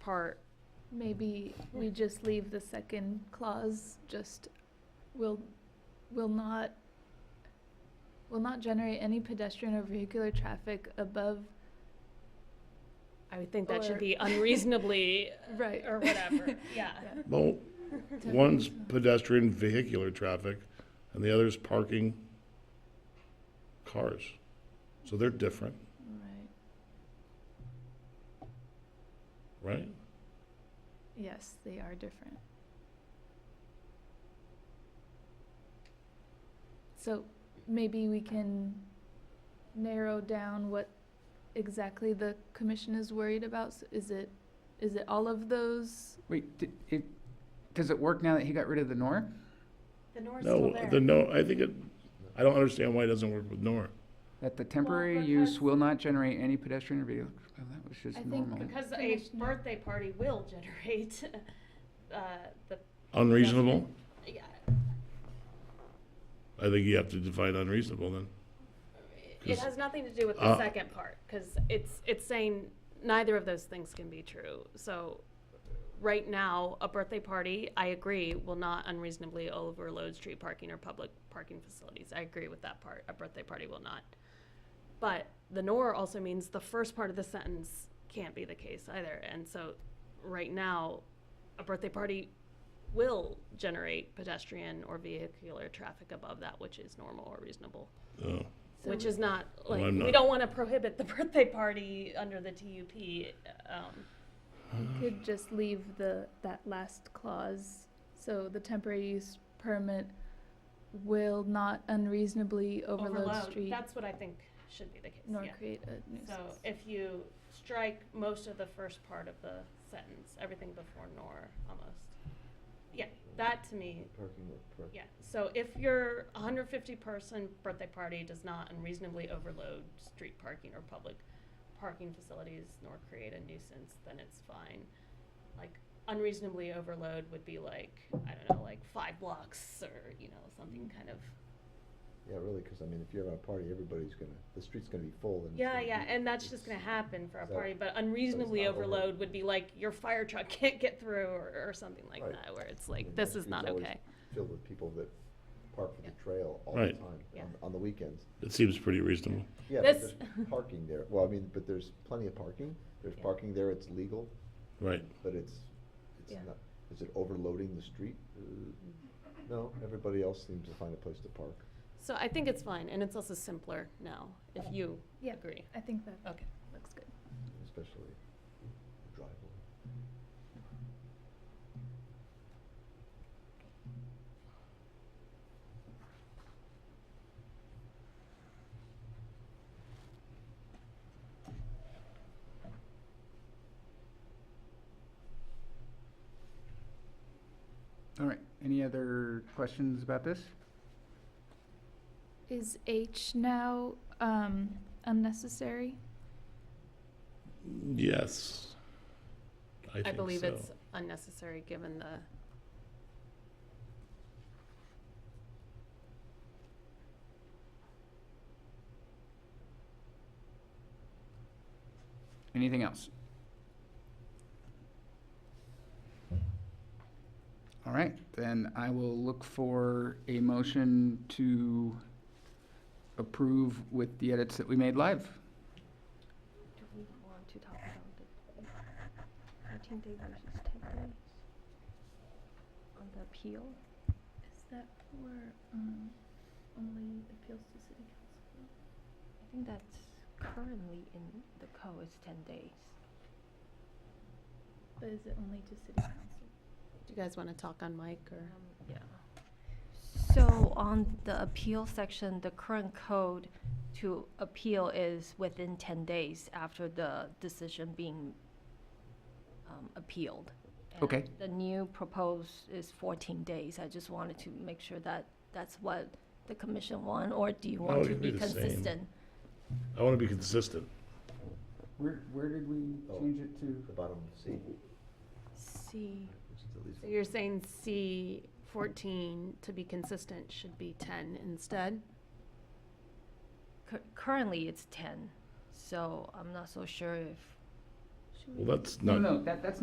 part, Maybe we just leave the second clause, just will, will not, will not generate any pedestrian or vehicular traffic above, I would think that Or- should be unreasonably, right, or whatever, yeah. Well, Definitely. one's pedestrian vehicular traffic and the other's parking cars. So they're different, right, right? yes, they are different. So maybe we can narrow down what exactly the commission is worried about, S- is it, is it all of those? Wait, d it, does it work now that he got rid of the nor? The nor's still No, there. the no, I think it, I don't understand why it doesn't work with Nora. That the temporary because- use will not generate any pedestrian or vehicular, well, that was I just think normal. Because a Finished now. birthday party will generate, uh, the, Unreasonable? yeah, I think you have to define unreasonable then. it 'Cause- has nothing to do with the Uh, second part, cause it's, it's saying neither of those things can be true, so. Right now, a birthday party, I agree, will not unreasonably overload street parking or public parking facilities, I agree with that part, a birthday party will not. But the nor also means the first part of the sentence can't be the case either. And so right now, a birthday party will generate pedestrian or vehicular traffic above that which is normal or reasonable. Oh, So which we- is not like I'm we not- don't want to prohibit the birthday party under the TUP. Um, Mm-hmm. Could just leave the, that last clause, so the temporary use permit will not unreasonably overload overload. street That's what I think should be the case. nor yeah. create a nuisance. So if you strike most of the first part of the sentence, everything before nor almost. Yeah, that to me Parking lot, correct. Yeah, so if your hundred fifty person birthday party does not unreasonably overload street parking or public parking facilities nor create a nuisance, then it's fine. Like unreasonably overload would be like, I don't know, like five blocks or, you know, something kind of, Yeah, really, because I mean, if you're having a party, everybody's gonna, the street's gonna be full and. it's yeah, gonna yeah, be- and that's just it's- gonna happen for a So- party, but unreasonably not over- overload would be like your fire truck can't get through or, or something like Right. that, where it's I like, mean, this that is street's not always okay. Filled with people that park for the trail all the Right. time, Yeah. on, on the weekends. It seems pretty reasonable. Yeah, but This- there's parking there, well, I mean, but there's plenty of parking, there's Yeah. parking there, it's legal, Right. but it's, it's Yeah. not, is it overloading the street? Uh, No, everybody else seems to find a place to park. So I think it's fine, and it's also simpler now, if you Yeah. agree. I think that Okay. looks good. especially the driveway. All right, any other questions about this? Is H now, um, unnecessary? Yes. I I think believe so. it's unnecessary, given the, Anything else? All right, then I will look for a motion to approve with the edits that we made live. Do we want to talk about the fourteen day versus ten days? On the appeal? Is that for, um, only appeals to city council? I think that's currently in the code is ten days. But is it only to city council? do you guys want to talk on mic or? Um, yeah. So on the appeal section, the current code to appeal is within ten days after the decision being um, appealed. And Okay. The new proposed is fourteen days. I just wanted to make sure that that's what the commission want, or do you No, it want to can Oh, be be the same. consistent? I want to be consistent. Where, where did we Oh. change it to? The bottom C, which See, is at least. So you're saying C fourteen, to be consistent, should be ten instead? cur- currently it's ten, so I'm not so sure if Should we Well, that's No, not. no, that, that's